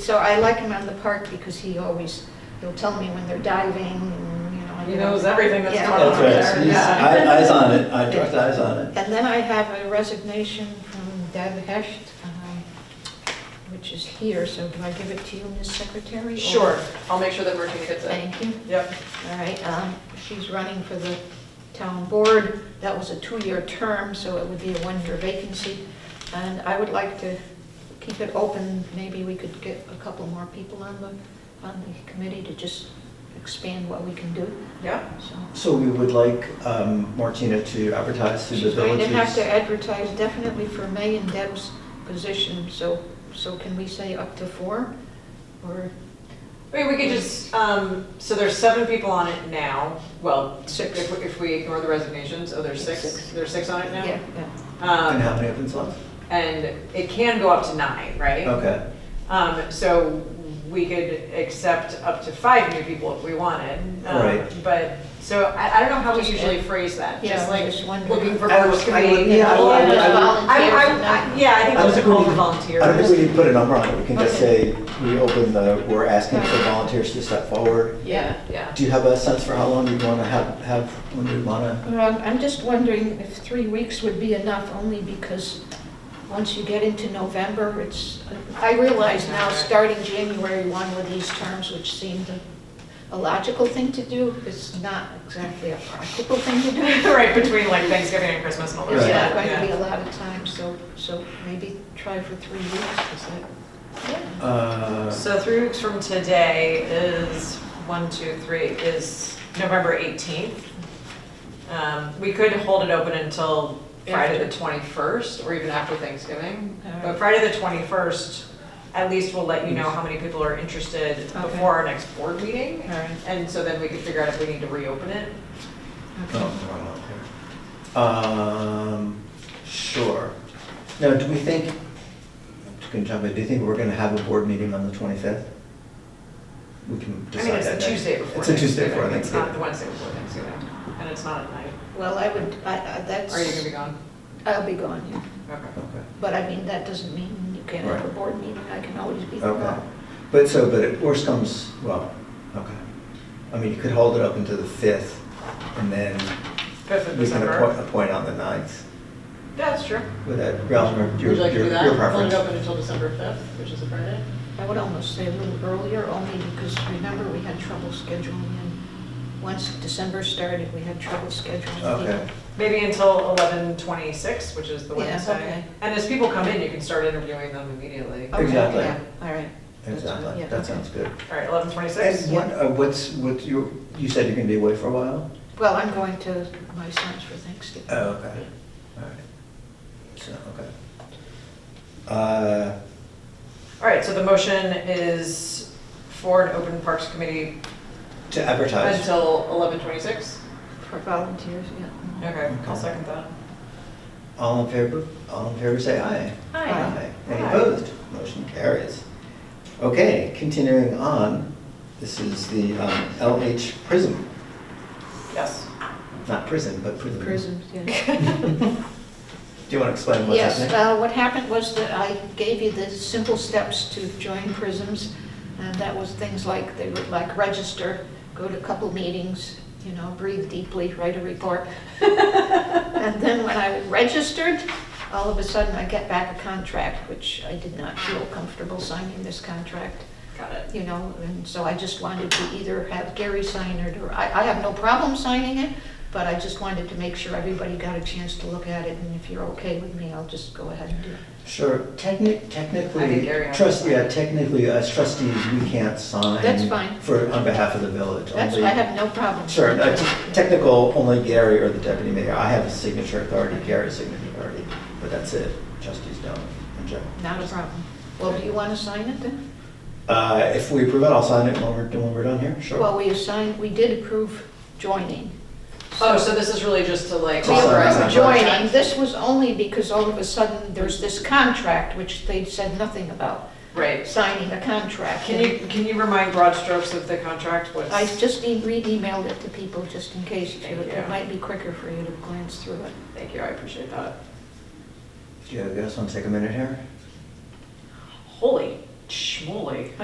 So I like him on the park because he always, he'll tell me when they're diving, and, you know. I He know. knows everything that's Yeah. going on. That's right. there, He's- yeah. Eye- Eyes on it, I trust eyes on it. And then I have a resignation from Deb Hesht, um, which is here, so do I give it to you, Ms. Secretary? or- Sure, I'll make sure that Virginia gets it. Thank you. Yep, All right, um, she's running for the town board. That was a two-year term, so it would be a one-year vacancy. And I would like to keep it open. Maybe we could get a couple more people on the, on the committee to just expand what we can do, yep. so. So we would like um, Martina to advertise through the She's going to have to villages. advertise definitely for May and Deb's position, so, so can we say up to four? Or I mean, we could just, um, so there's seven people on it now, well, Six. if, we- if we ignore the resignations, oh, there's six, Six. there's six on it now? Yeah, yeah. And Um, how many open slots? and it can go up to nine, right? Okay, Um, so we could accept up to five new people if we wanted. um, Right. But, so I, I don't know how we Just- usually phrase that, Yeah, just I'm like just wondering. looking for I groups was- to I would- be. yeah, I would- I would- I, I, I- yeah, I think I don't those are think we called for need- volunteers. I don't think we need to put a number on it, we can just Okay. say we open the, we're asking for volunteers to step forward. Yeah. Yeah. Do you have a sense for how long you want to have, have, when you want to? Um, I'm just wondering if three weeks would be enough, only because once you get into November, it's, I realize now, starting January 1 with these terms, which seemed a- a logical thing to do, it's not exactly a practical thing to do. Right, between like Thanksgiving and Christmas and all that There's Right. not stuff. going to be yeah. a lot of time, so, so maybe try for three weeks, is that? Uh, So three weeks from today is, one, two, three, is November 18th. Um, We could hold it open until Friday the 21st, or even after Thanksgiving. But Alright. Friday the 21st, at least we'll let you know how many people are interested Okay. before our next board meeting. All right. And so then we can figure out if we need to reopen it. Oh, no, I'm not here. Um, sure. Now, do we think, can jump in, do you think we're gonna have a board meeting on the twenty-fifth? We can I mean, decide it's that. the next- Tuesday before It's a Thanksgiving. Tuesday before It's not the Thanksgiving. Wednesday before Thanksgiving, and it's not at night. Well, I would, I, I, that's. Are you gonna be gone? I'll be gone, yeah. Okay. Okay. But I mean, that doesn't mean you can't have a Right. board meeting, I can always be Okay, gone. but so, but it worst comes, well, okay. I mean, you could hold it up until the fifth, and then Fifth of we can appoint, December. appoint on the ninth. That's true. Would that, Ralph, your, Would you like to your do that? your Hold preference? it open until December 5th, which is a Friday? I would almost say a little earlier, only because remember, we had trouble scheduling in. Once December started, we had trouble scheduling. Okay, people. Maybe until eleven twenty-six, which is the Yeah, Wednesday. okay. Oh. And as people come in, you can start interviewing them immediately. Okay, Exactly. yeah, All right. That's fine, exactly, yeah, that okay. sounds good. All right, eleven twenty-six? And what, uh, what's, what, you, you said you're gonna be away for a while? Well, I'm going to my son's for Thanksgiving. Oh, okay, all right. So, okay. Uh, All right, so the motion is for an open Parks Committee to advertise, until eleven twenty-six? For volunteers, yeah. Okay, I'll Okay. second that. all in favor, all in favor, say aye. Aye. Any Aye. opposed? Motion carries. Okay, continuing on, this is the um, LH Prism, Yes. not prison, but prison. Prisons, yeah. Do you want to explain what's Yes, happening? uh, what happened was that I gave you the simple steps to join prisms, and that was things like, they were like register, go to a couple meetings, you know, breathe deeply, write a report. And then when I registered, all of a sudden I get back a contract, which I did not feel comfortable signing this contract Got it. you know, and so I just wanted to either have Gary sign it, or I, I have no problem signing it, but I just wanted to make sure everybody got a chance to look at it, and if you're okay with me, I'll just go ahead and do it. Sure, technic, technically, Gary has trust, to yeah, sign. technically, as trustees, we can't sign. That's fine. For, on behalf of the village. That's, only- I have no problem. Sure, no, t- technical, only Gary or the deputy mayor. I have a signature authority, Gary's signature authority, but that's it. Trustees don't in general. Not a problem. Well, do you want to sign it then? Uh, If we approve it, I'll sign it when we're, when we're done here, sure. Well, we assigned, we did approve joining. Oh, so this is really just to like We Awesome. authorize. approved them. joining, this was only because all of a sudden, there's this contract, which they said nothing about, Right. signing a contract. Can you, can you remind broad strokes of the contract? What's? I just e- re-emailed it to people just in case, Thank you- you. it might be quicker for you to glance through it. Thank you, I appreciate that. Do you guys want to take a minute here? Holy Schmoly.